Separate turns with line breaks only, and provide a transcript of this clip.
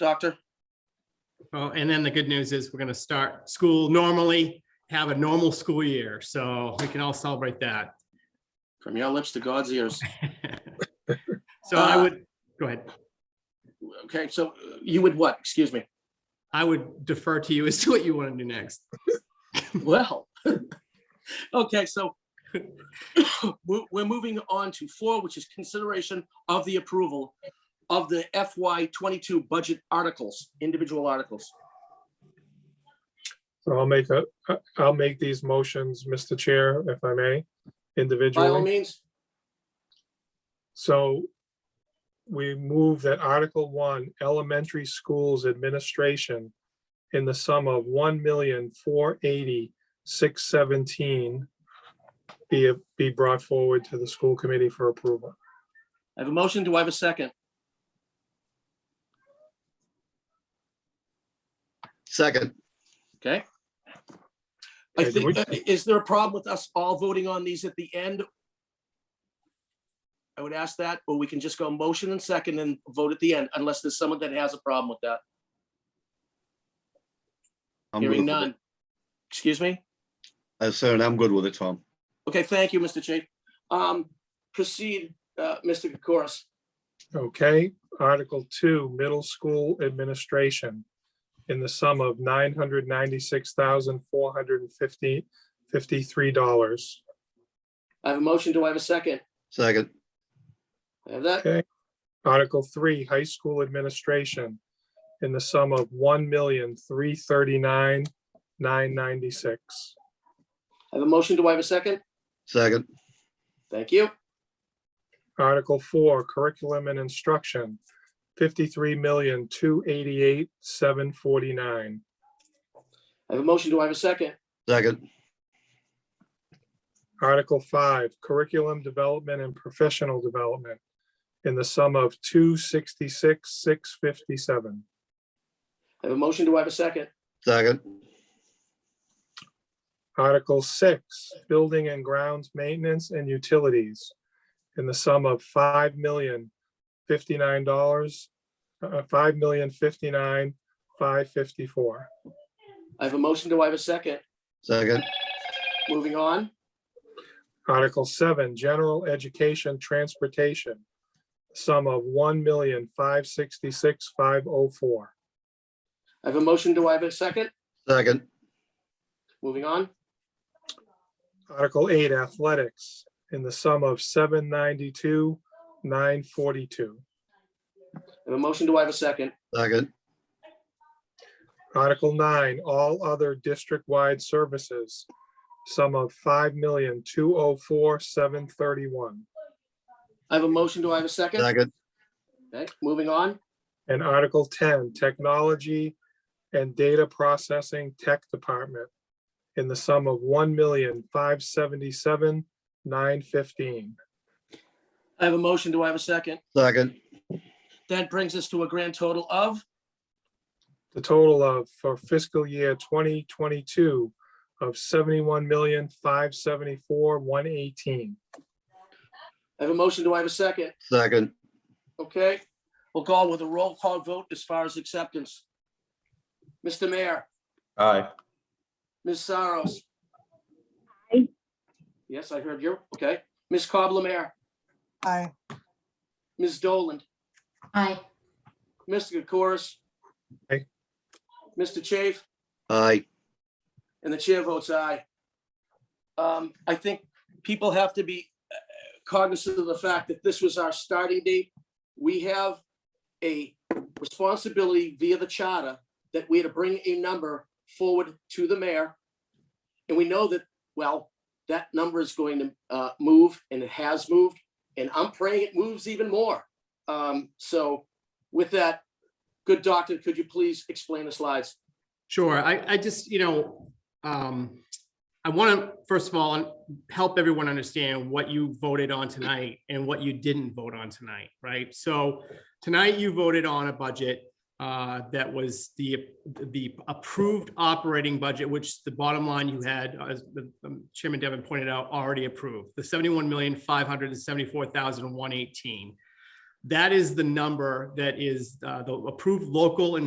Doctor?
Oh, and then the good news is we're gonna start school normally, have a normal school year, so we can all celebrate that.
From your lips to God's ears.
So I
Uh,
would, go ahead.
Okay, so uh, you would what? Excuse me.
I would defer to you as to what you want to do next.
Well, okay, so we're, we're moving on to four, which is consideration of the approval of the FY twenty-two budget articles, individual articles.
So I'll make a, I- I'll make these motions, Mr. Chair, if I may,
By all
individually.
means,
So we move that Article One, Elementary Schools Administration in the sum of one million, four eighty, six seventeen be, be brought forward to the school committee for approval.
I have a motion. Do I have a second?
Second,
Okay. I
Okay, do
think,
we-
that- is there a problem with us all voting on these at the end? I would ask that, or we can just go motion and second and vote at the end, unless there's someone that has a problem with that.
I'm good
Hearing
with
none.
it.
Excuse me?
Uh, sir, and I'm good with it, Tom.
Okay, thank you, Mr. Chief. Um, proceed, uh, Mr. Kokoris.
Okay, Article Two, Middle School Administration, in the sum of nine hundred ninety-six thousand four hundred and fifty, fifty-three dollars.
I have a motion. Do I have a second?
Second,
I have that.
Okay. Article Three, High School Administration, in the sum of one million three thirty-nine, nine ninety-six.
I have a motion. Do I have a second?
second,
Thank you.
Article Four, Curriculum and Instruction, fifty-three million two eighty-eight, seven forty-nine.
I have a motion. Do I have a second?
second,
Article five, curriculum development and professional development in the sum of two sixty-six, six fifty-seven.
I have a motion. Do I have a second?
second,
Article six, building and grounds maintenance and utilities in the sum of five million fifty-nine dollars, uh, five million fifty-nine, five fifty-four.
I have a motion. Do I have a second?
second,
Moving on.
Article seven, general education transportation, sum of one million, five sixty-six, five oh four.
I have a motion. Do I have a second?
second,
Moving on.
Article eight, athletics, in the sum of seven ninety-two, nine forty-two.
I have a motion. Do I have a second?
second,
Article nine, all other district-wide services, sum of five million, two oh four, seven thirty-one.
I have a motion. Do I have a second?
second,
Okay, moving on.
And Article ten, technology and data processing tech department, in the sum of one million, five seventy-seven, nine fifteen.
I have a motion. Do I have a second?
second,
That brings us to a grand total of,
the total of for fiscal year twenty twenty-two of seventy-one million, five seventy-four, one eighteen.
I have a motion. Do I have a second?
second,
Okay, we'll go with a roll call vote as far as acceptance. Mr. Mayor,
Aye.
Ms. Saros.
Aye.
Yes, I heard you. Okay. Ms. Coble Mayor,
Aye.
Ms. Doland,
Aye.
Mr. Corus.
Aye.
Mr. Chafe,
aye,
and the chair votes aye. Um, I think people have to be uh, cognizant of the fact that this was our starting date. We have a responsibility via the charter that we had to bring a number forward to the mayor. And we know that, well, that number is going to uh, move and it has moved, and I'm praying it moves even more. Um, So with that, good doctor, could you please explain the slides?
Sure, I, I just, you know, um, I want to, first of all, help everyone understand what you voted on tonight and what you didn't vote on tonight, right? So tonight you voted on a budget uh, that was the, the approved operating budget, which the bottom line you had, as the um, Chairman Devon pointed out, already approved, the seventy-one million, five hundred and seventy-four thousand, one eighteen. That is the number that is uh, the approved local and